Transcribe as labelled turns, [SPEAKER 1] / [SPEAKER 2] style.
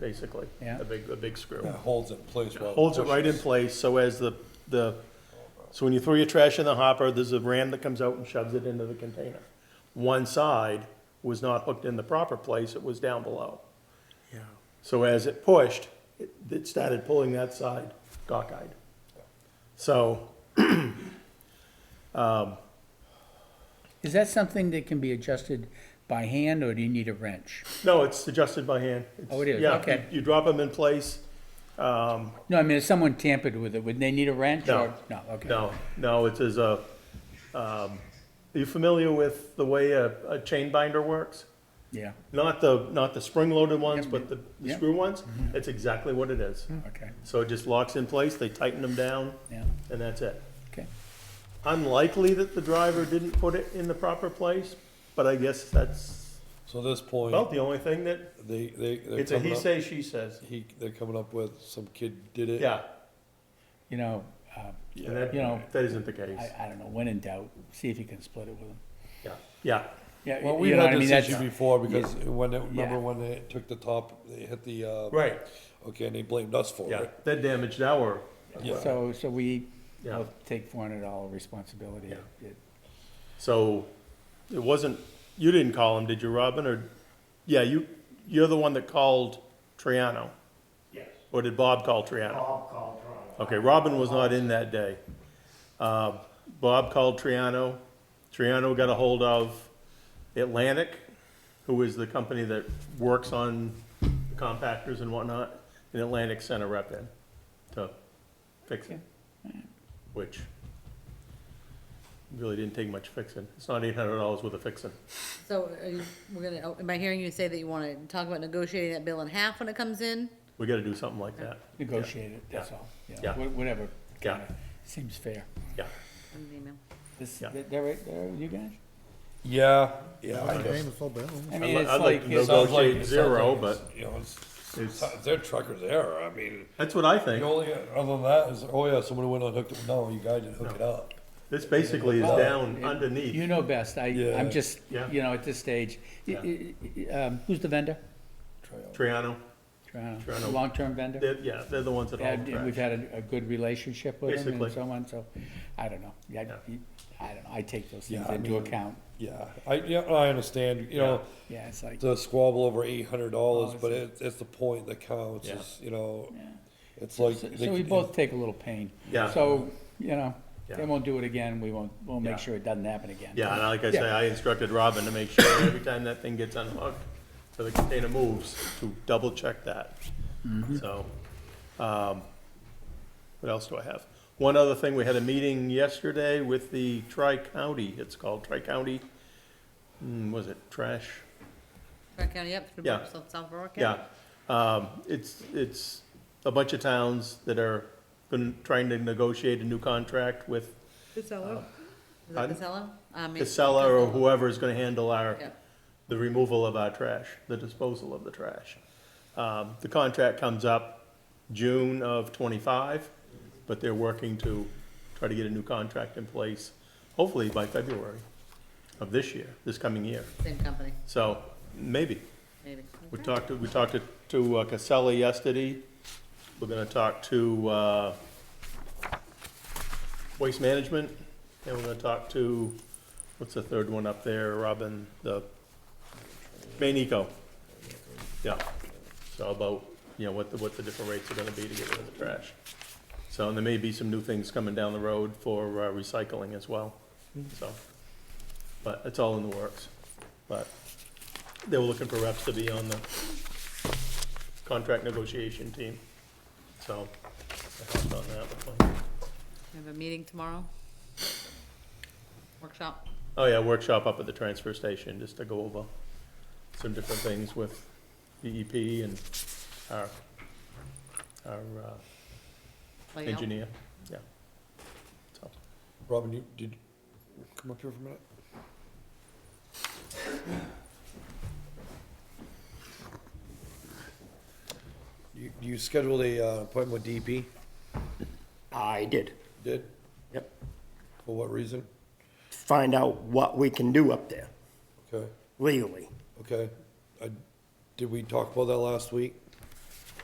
[SPEAKER 1] basically.
[SPEAKER 2] Yeah.
[SPEAKER 1] A big, a big screw.
[SPEAKER 3] It holds it in place while.
[SPEAKER 1] Holds it right in
[SPEAKER 3] pushes.
[SPEAKER 1] place, so as the, the, so when you throw your trash in the hopper, there's a ram that comes out and shoves it into the container. One side was not hooked in the proper place, it was down below. So as it pushed, it, it started pulling that side cockeyed. So,
[SPEAKER 2] Is that something that can be adjusted by hand, or do you need a wrench?
[SPEAKER 1] no, it's adjusted by hand. It's-
[SPEAKER 2] Oh, it is,
[SPEAKER 1] yeah, you-
[SPEAKER 2] okay.
[SPEAKER 1] You drop them in place,
[SPEAKER 2] No, I mean, if someone tampered with it, would they need a wrench?
[SPEAKER 1] No.
[SPEAKER 2] or- No, okay.
[SPEAKER 1] No, no, it is a, um, are you familiar with the way a, a chain binder works?
[SPEAKER 2] Yeah,
[SPEAKER 1] Not the, not the spring-loaded ones, but the the
[SPEAKER 2] yeah. Mm-hmm.
[SPEAKER 1] screw ones? It's exactly what it is.
[SPEAKER 2] okay,
[SPEAKER 1] So it just locks in place, they tighten them down,
[SPEAKER 2] yeah,
[SPEAKER 1] and that's it.
[SPEAKER 2] okay.
[SPEAKER 1] Unlikely that the driver didn't put it in the proper place, but I guess that's
[SPEAKER 3] So at this
[SPEAKER 1] about
[SPEAKER 3] point,
[SPEAKER 1] the only thing that,
[SPEAKER 3] they, they, they're
[SPEAKER 1] it's a
[SPEAKER 3] coming
[SPEAKER 1] he
[SPEAKER 3] up,
[SPEAKER 1] say, she says.
[SPEAKER 3] he, they're coming up with some kid did it.
[SPEAKER 1] Yeah,
[SPEAKER 2] You know, uh,
[SPEAKER 1] and that,
[SPEAKER 2] You know,
[SPEAKER 1] that isn't the case.
[SPEAKER 2] I, I don't know, when in doubt, see if you can split it with them.
[SPEAKER 1] Yeah, yeah,
[SPEAKER 2] Yeah,
[SPEAKER 3] Well,
[SPEAKER 2] you-
[SPEAKER 3] we
[SPEAKER 2] you know what I
[SPEAKER 3] had
[SPEAKER 2] mean,
[SPEAKER 3] this
[SPEAKER 2] that's,
[SPEAKER 3] issue before because when, it-
[SPEAKER 2] Yeah.
[SPEAKER 3] remember when they took the top, they hit the, uh.
[SPEAKER 1] Right.
[SPEAKER 3] Okay, and they blamed us for
[SPEAKER 1] yeah.
[SPEAKER 3] it.
[SPEAKER 1] That damaged our,
[SPEAKER 2] so, so we
[SPEAKER 1] Yeah.
[SPEAKER 2] will take four hundred dollar responsibility.
[SPEAKER 1] Yeah.
[SPEAKER 2] It-
[SPEAKER 1] So it wasn't, you didn't call him, did you, Robin? Or, yeah, you, you're the one that called Triano?
[SPEAKER 4] Yes,
[SPEAKER 1] Or did Bob call Triano?
[SPEAKER 4] Bob called Toronto.
[SPEAKER 1] Okay, Robin was not in that day. Uh, Bob called Triano. Triano got a hold of Atlantic, who is the company that works on compactors and whatnot. And Atlantic sent a rep in to fix it, which really didn't take much fixing. It's not eight hundred dollars worth of fixing.
[SPEAKER 5] So are you, we're gonna, oh, am I hearing you say that you wanna talk about negotiating that bill in half when it comes in?
[SPEAKER 1] We gotta do something like that.
[SPEAKER 2] Negotiate it, that's all, yeah,
[SPEAKER 1] Yeah.
[SPEAKER 2] wha- whatever,
[SPEAKER 1] Yeah.
[SPEAKER 2] kinda, seems fair.
[SPEAKER 1] Yeah,
[SPEAKER 5] In the email.
[SPEAKER 2] This,
[SPEAKER 1] Yeah.
[SPEAKER 2] they're, they're, right there, you guys?
[SPEAKER 3] Yeah, yeah. I guess.
[SPEAKER 6] Paying the full bill.
[SPEAKER 2] I
[SPEAKER 1] I'd
[SPEAKER 2] mean,
[SPEAKER 1] li-
[SPEAKER 2] it's
[SPEAKER 1] I'd like
[SPEAKER 2] like,
[SPEAKER 1] to
[SPEAKER 2] it's-
[SPEAKER 1] know
[SPEAKER 3] Sounds like-
[SPEAKER 1] Negotiate
[SPEAKER 3] sounds
[SPEAKER 1] zero,
[SPEAKER 3] like it's,
[SPEAKER 1] but
[SPEAKER 3] You know, it's,
[SPEAKER 1] it's-
[SPEAKER 3] it's their trucker's error, I mean,
[SPEAKER 1] that's what I
[SPEAKER 3] the
[SPEAKER 1] think.
[SPEAKER 3] only, other than that is, oh yeah, someone went and hooked it, no, you guys didn't hook it up.
[SPEAKER 1] This basically is down underneath.
[SPEAKER 2] you know best, I,
[SPEAKER 3] Yeah.
[SPEAKER 2] I'm just,
[SPEAKER 1] Yeah.
[SPEAKER 2] you know, at this stage, Y- y- y- um, who's the vendor?
[SPEAKER 3] Try out.
[SPEAKER 1] Triano,
[SPEAKER 2] Toronto.
[SPEAKER 1] Toronto.
[SPEAKER 2] Long-term vendor?
[SPEAKER 1] they're, yeah, they're the ones that haul
[SPEAKER 2] And
[SPEAKER 1] the
[SPEAKER 2] and we've
[SPEAKER 1] trash.
[SPEAKER 2] had a, a good relationship with them
[SPEAKER 1] Basically.
[SPEAKER 2] and so on, so, I don't know. Yeah,
[SPEAKER 1] Yeah.
[SPEAKER 2] you- I don't know, I take those things
[SPEAKER 3] Yeah, I
[SPEAKER 2] into
[SPEAKER 3] mean-
[SPEAKER 2] account.
[SPEAKER 3] Yeah, I, yeah, I understand, you know,
[SPEAKER 2] Yeah, it's like,
[SPEAKER 3] the squabble over eight hundred dollars,
[SPEAKER 2] Oh,
[SPEAKER 3] but it, it's the point that counts,
[SPEAKER 1] Yeah.
[SPEAKER 3] is, you know, it's
[SPEAKER 2] so
[SPEAKER 3] like. they
[SPEAKER 2] so we
[SPEAKER 3] can-
[SPEAKER 2] both take a little pain.
[SPEAKER 1] Yeah.
[SPEAKER 2] So, you know, they
[SPEAKER 1] Yeah.
[SPEAKER 2] won't do it again, we won't, we'll
[SPEAKER 1] Yeah.
[SPEAKER 2] make sure it doesn't happen again.
[SPEAKER 1] Yeah, and like I say,
[SPEAKER 2] Yeah.
[SPEAKER 1] I instructed Robin to make sure every time that thing gets unhooked, so the container moves, to double check that.
[SPEAKER 2] Mm-hmm.
[SPEAKER 1] So, um, what else do I have? One other thing, we had a meeting yesterday with the Tri-County, it's called Tri-County, hmm, was it trash?
[SPEAKER 5] Park County, yep, through
[SPEAKER 1] Yeah.
[SPEAKER 5] South South Berwick County.
[SPEAKER 1] Yeah, um, it's, it's a bunch of towns that are been trying to negotiate a new contract with
[SPEAKER 5] Casella. Is that
[SPEAKER 1] Uh, Pardon?
[SPEAKER 5] Casella? I mean-
[SPEAKER 1] Casella or whoever is gonna handle our,
[SPEAKER 5] Yeah.
[SPEAKER 1] the removal of our trash, the disposal of the trash. Um, the contract comes up June of twenty-five, but they're working to try to get a new contract in place, hopefully by February of this year, this coming year.
[SPEAKER 5] Same company,
[SPEAKER 1] So, maybe.
[SPEAKER 5] maybe.
[SPEAKER 1] We
[SPEAKER 5] Okay.
[SPEAKER 1] talked, to- we talked to- to uh, Casella yesterday. We're gonna talk to, uh, Waste Management, and we're gonna talk to, what's the third one up there, Robin, the, Maine Eco. Yeah, so about, you know, what the, what the different rates are gonna be to get rid of the trash. So, and there may be some new things coming down the road for uh, recycling as well, so. But it's all in the works, but they were looking for reps to be on the contract negotiation team, so I hopped on that with my-
[SPEAKER 5] We have a meeting tomorrow. Workshop.
[SPEAKER 1] Oh, yeah, workshop up at the transfer station, just to go over some different things with DEP and our, our uh,
[SPEAKER 5] layout.
[SPEAKER 1] engineer, yeah. So,
[SPEAKER 3] Robin, you, did, you come up here for a minute? You, you scheduled a, uh, appointment with DP,
[SPEAKER 7] I did.
[SPEAKER 3] did,
[SPEAKER 7] Yep.
[SPEAKER 3] for what reason?
[SPEAKER 7] Find out what we can do up there
[SPEAKER 3] Okay,
[SPEAKER 7] legally.
[SPEAKER 3] okay, I, did we talk about that last week?